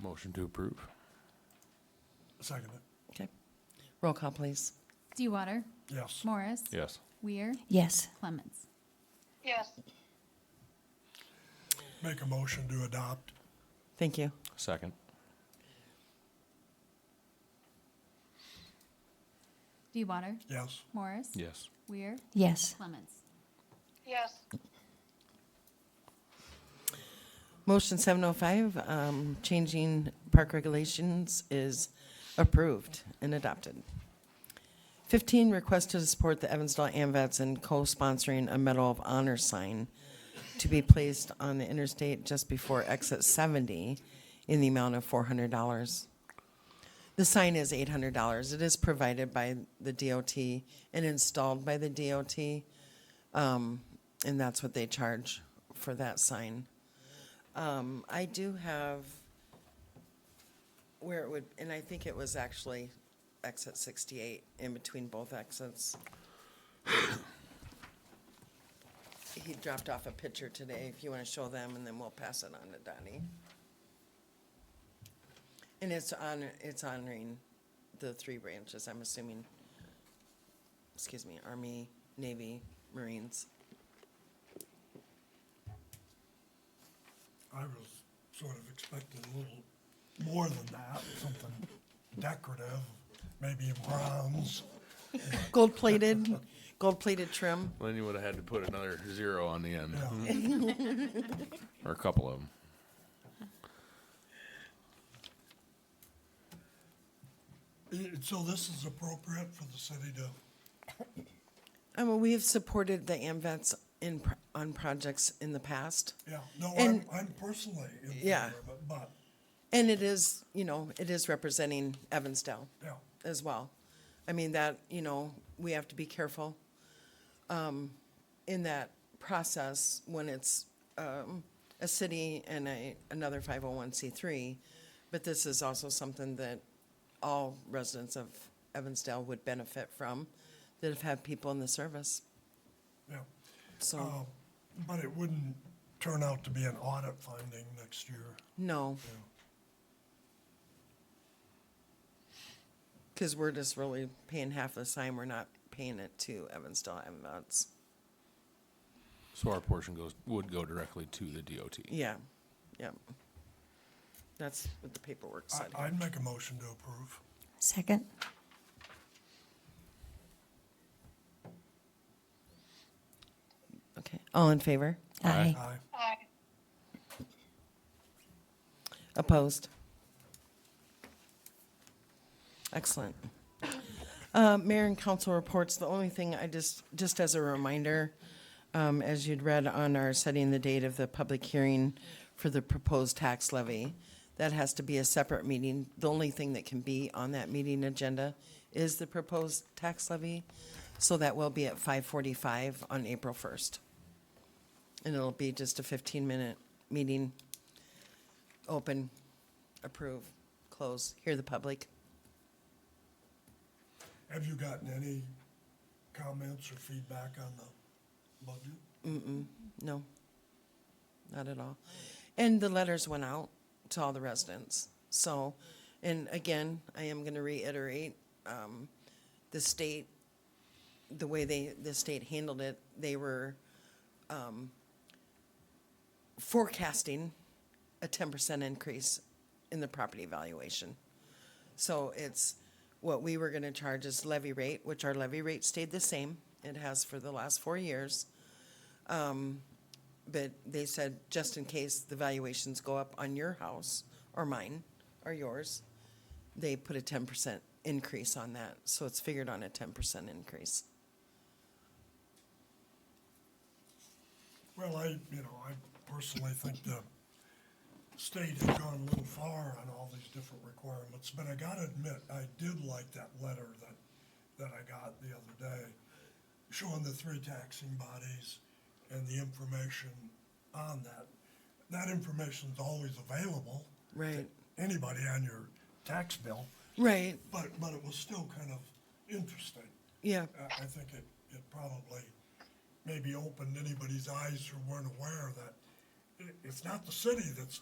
Motion to approve. Second it. Okay. Roll call, please. Dewater. Yes. Morris. Yes. Weir. Yes. Clements. yes, Make a motion to adopt. Thank you. Second. Dewater. Yes. Morris. Yes. Weir. Yes. Clements. yes, Motion 705, um, changing park regulations is approved and adopted. 15, request to support the Evansdale AMVets in co-sponsoring a Medal of Honor sign to be placed on the interstate just before exit 70 in the amount of $400. The sign is $800. It is provided by the DOT and installed by the DOT. Um, and that's what they charge for that sign. Um, I do have where it would, and I think it was actually exit sixty-eight in between both exits. He dropped off a picture today, if you wanna show them, and then we'll pass it on to Donnie. And it's on, it's honoring the three branches, I'm assuming, excuse me, Army, Navy, Marines. I was sort of expecting a little more than that, something decorative, maybe in bronze. Gold-plated, gold-plated trim. Then you would have had to put another zero on the end, Yeah. or a couple of them. And So this is appropriate for the city to, I mean, we have supported the AMVets in, pro- on projects in the past. yeah, no, I'm, And- I'm personally in Yeah. favor of it, but, And it is, you know, it is representing Evansdale yeah, as well. I mean, that, you know, we have to be careful um, in that process when it's um, a city and a, another 501c3. But this is also something that all residents of Evansdale would benefit from that have had people in the service. yeah. So, Um, But it wouldn't turn out to be an audit finding next year. no. Because we're just really paying half the sign, we're not paying it to Evansdale MVets. So our portion goes, would go directly to the DOT. Yeah, yeah. That's what the paperwork said. I, I'd make a motion to approve. Second. Okay, all in favor? Aye. Aye. aye, Opposed? Excellent. Uh, Mayor and council reports, the only thing I just, just as a reminder, um, as you'd read on our setting the date of the public hearing for the proposed tax levy, that has to be a separate meeting. The only thing that can be on that meeting agenda is the proposed tax levy. So that will be at five forty-five on April first. And it'll be just a fifteen-minute meeting open, approve, close, hear the public. Have you gotten any comments or feedback on the budget? No, not at all. And the letters went out to all the residents. So, and again, I am going to reiterate, um, the state, the way they, the state handled it, they were, um, forecasting a ten percent increase in the property valuation. So it's what we were gonna charge is levy rate, which our levy rate stayed the same. It has for the last four years. Um, but they said, just in case the valuations go up on your house or mine or yours, they put a ten percent increase on that. So it's figured on a ten percent increase. Well, I, you know, I personally think the state has gone a little far on all these different requirements, but I gotta admit, I did like that letter that, that I got the other day, showing the three taxing bodies and the information on that. That information's always available. to Right. Anybody on your tax bill, Right, but, but it was still kind of interesting. yeah, I, I think it, it probably maybe opened anybody's eyes who weren't aware that i- it's not the city that's